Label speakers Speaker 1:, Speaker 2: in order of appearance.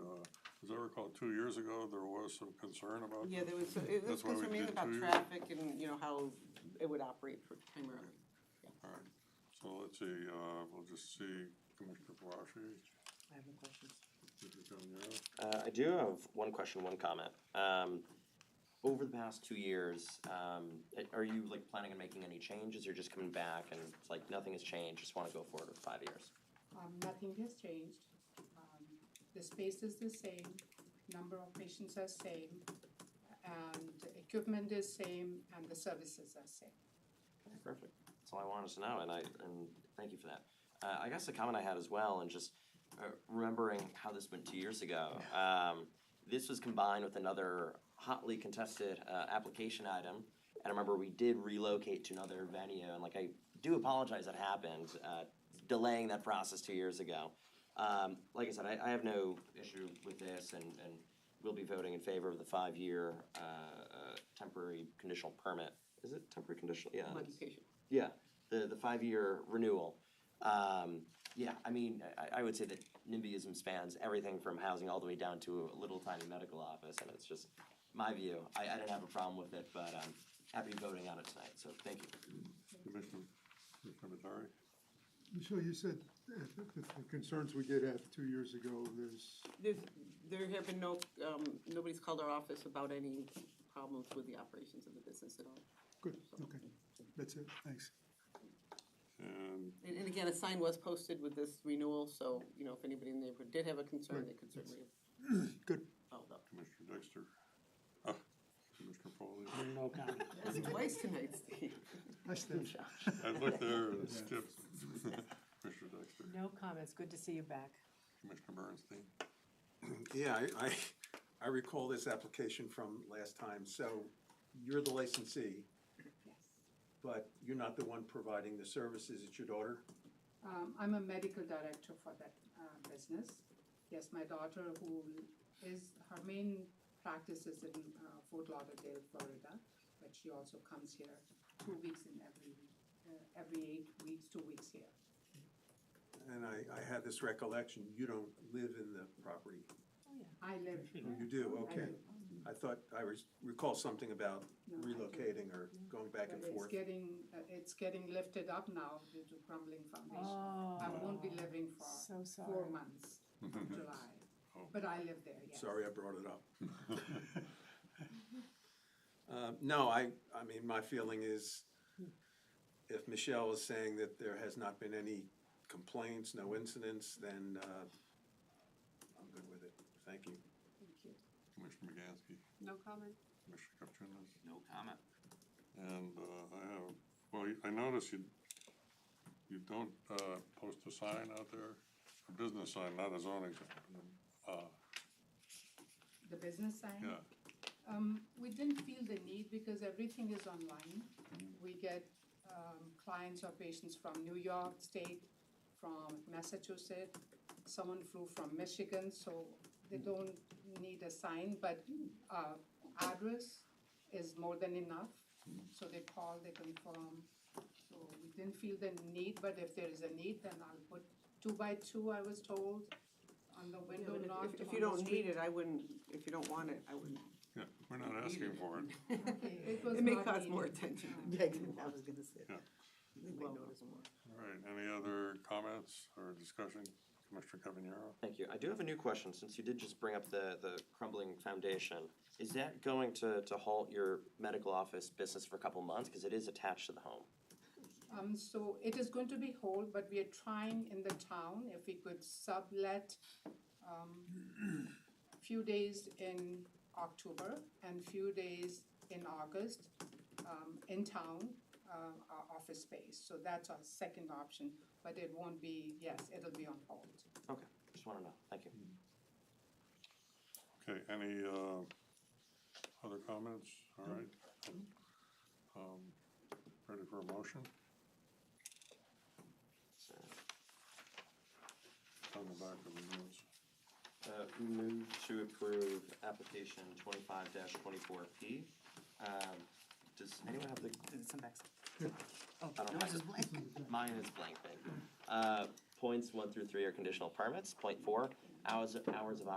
Speaker 1: Uh, recall, two years ago, there was some concern about.
Speaker 2: Yeah, there was, it was
Speaker 1: That's why we
Speaker 2: concerned mainly
Speaker 1: did
Speaker 2: about
Speaker 1: two.
Speaker 2: traffic and, you know, how it would operate for- primarily.
Speaker 1: All right, so let's see, uh, we'll just see Commissioner Quashi,
Speaker 2: I have no questions.
Speaker 1: Commissioner Taniya.
Speaker 3: Uh, I do have one question, one comment. Um, over the past two years, um, a- are you like planning on making any changes or just coming back and it's like nothing has changed, just wanna go forward with five years?
Speaker 4: Um, nothing has changed. Um, the space is the same, number of patients are same, and the equipment is same, and the services are same.
Speaker 3: Okay, Perfect. That's all I wanted to know, and I, and thank you for that. Uh, I guess the comment I had as well, and just uh, remembering how this went two years ago. Um, this was combined with another hotly contested uh, application item, and I remember we did relocate to another venue, and like I do apologize that happened, uh, delaying that process two years ago. Um, like I said, I, I have no issue with this, and, and we'll be voting in favor of the five-year uh, uh, temporary conditional permit. Is it temporary conditional? Yeah. it's-
Speaker 2: Modification.
Speaker 3: yeah, the, the five-year renewal. Um, yeah, I mean, I, I would say that NIMBYism spans everything from housing all the way down to a little tiny medical office, and it's just my view. I, I didn't have a problem with it, but I'm happy voting on it tonight, so thank you.
Speaker 1: Commissioner, Commissioner Matari.
Speaker 5: Michelle, you said uh, the the concerns we did have two years ago, there's,
Speaker 2: There's, there have been no, um, nobody's called our office about any problems with the operations of the business at all.
Speaker 5: good, okay, that's it, thanks.
Speaker 1: And
Speaker 2: And, and again, a sign was posted with this renewal, so, you know, if anybody in the neighborhood did have a concern, they could certainly have
Speaker 5: Good,
Speaker 2: followed up.
Speaker 1: Commissioner Dexter. Uh, Commissioner Foley.
Speaker 6: No comment.
Speaker 2: That's twice tonight, Steve.
Speaker 5: nice thing.
Speaker 1: I looked there and skipped. Commissioner Dexter,
Speaker 7: No comments, good to see you back.
Speaker 1: Commissioner Bernstein.
Speaker 8: Yeah, I, I, I recall this application from last time, so you're the licensee, but you're not the one providing the services, it's your daughter?
Speaker 4: Um, I'm a medical director for that uh, business. Yes, my daughter, who is her main practice is in uh, Fort Lauderdale, Florida, but she also comes here two weeks in every uh, every eight weeks, two weeks here.
Speaker 8: And I, I had this recollection, you don't live in the property.
Speaker 4: I live.
Speaker 8: Oh, You do,
Speaker 4: I
Speaker 8: okay.
Speaker 4: live-
Speaker 8: I thought, I res- recall something about
Speaker 4: No, I do.
Speaker 8: relocating or going back and
Speaker 4: But it's
Speaker 8: forth.
Speaker 4: getting, uh, it's getting lifted up now due to crumbling foundation. I
Speaker 8: Oh.
Speaker 4: won't be living for
Speaker 7: Oh, So
Speaker 4: four
Speaker 7: sorry.
Speaker 4: months from July,
Speaker 1: Oh.
Speaker 4: but I live there, yes.
Speaker 8: Sorry I brought it up. Uh, No, I, I mean, my feeling is if Michelle is saying that there has not been any complaints, no incidents, then uh, I'm good with it. Thank you.
Speaker 1: Commissioner McGansky.
Speaker 4: No comment?
Speaker 1: Commissioner Kupchinas.
Speaker 3: No comment.
Speaker 1: And uh, I have, well, I notice you, you don't uh, post a sign out there, a business sign, not a zoning sign. Uh,
Speaker 4: The business sign?
Speaker 1: Yeah,
Speaker 4: Um, we didn't feel the need because everything is online. We get, um, clients or patients from New York State, from Massachusetts. Someone flew from Michigan, so they don't need a sign, but, uh, address is more than enough. So they call, they confirm. So we didn't feel the need, but if there is a need, then I'll put two by two, I was told, on the
Speaker 2: Yeah,
Speaker 4: window
Speaker 2: but
Speaker 4: not on
Speaker 2: if-
Speaker 4: the
Speaker 2: If you don't
Speaker 4: street.
Speaker 2: need it, I wouldn't, if you don't want it, I wouldn't.
Speaker 1: yeah, we're not asking for it.
Speaker 4: It was
Speaker 2: It may
Speaker 4: not
Speaker 2: cause more
Speaker 4: needed.
Speaker 2: attention than negative, I was gonna say.
Speaker 1: Yeah.
Speaker 2: They may notice more.
Speaker 1: All right, any other comments or discussion? Commissioner Cavanero?
Speaker 3: Thank you. I do have a new question, since you did just bring up the, the crumbling foundation. Is that going to, to halt your medical office business for a couple months? Because it is attached to the home.
Speaker 4: Um, so it is going to be whole, but we are trying in the town if we could sublet, um, few days in October and few days in August, um, in town, uh, our office space. So that's our second option, but it won't be, yes, it'll be on hold.
Speaker 3: Okay, just wanna know. Thank you.
Speaker 1: Okay, any uh, other comments? All right. Um, Ready for a motion?
Speaker 3: So,
Speaker 1: On the back of the news.
Speaker 3: Uh, move to approve application twenty-five twenty-four P. Um, does anyone have the,
Speaker 7: Some back.
Speaker 3: I don't have it. Mine is blank, thank you. Uh, points one through three are conditional permits. Point four, hours, hours of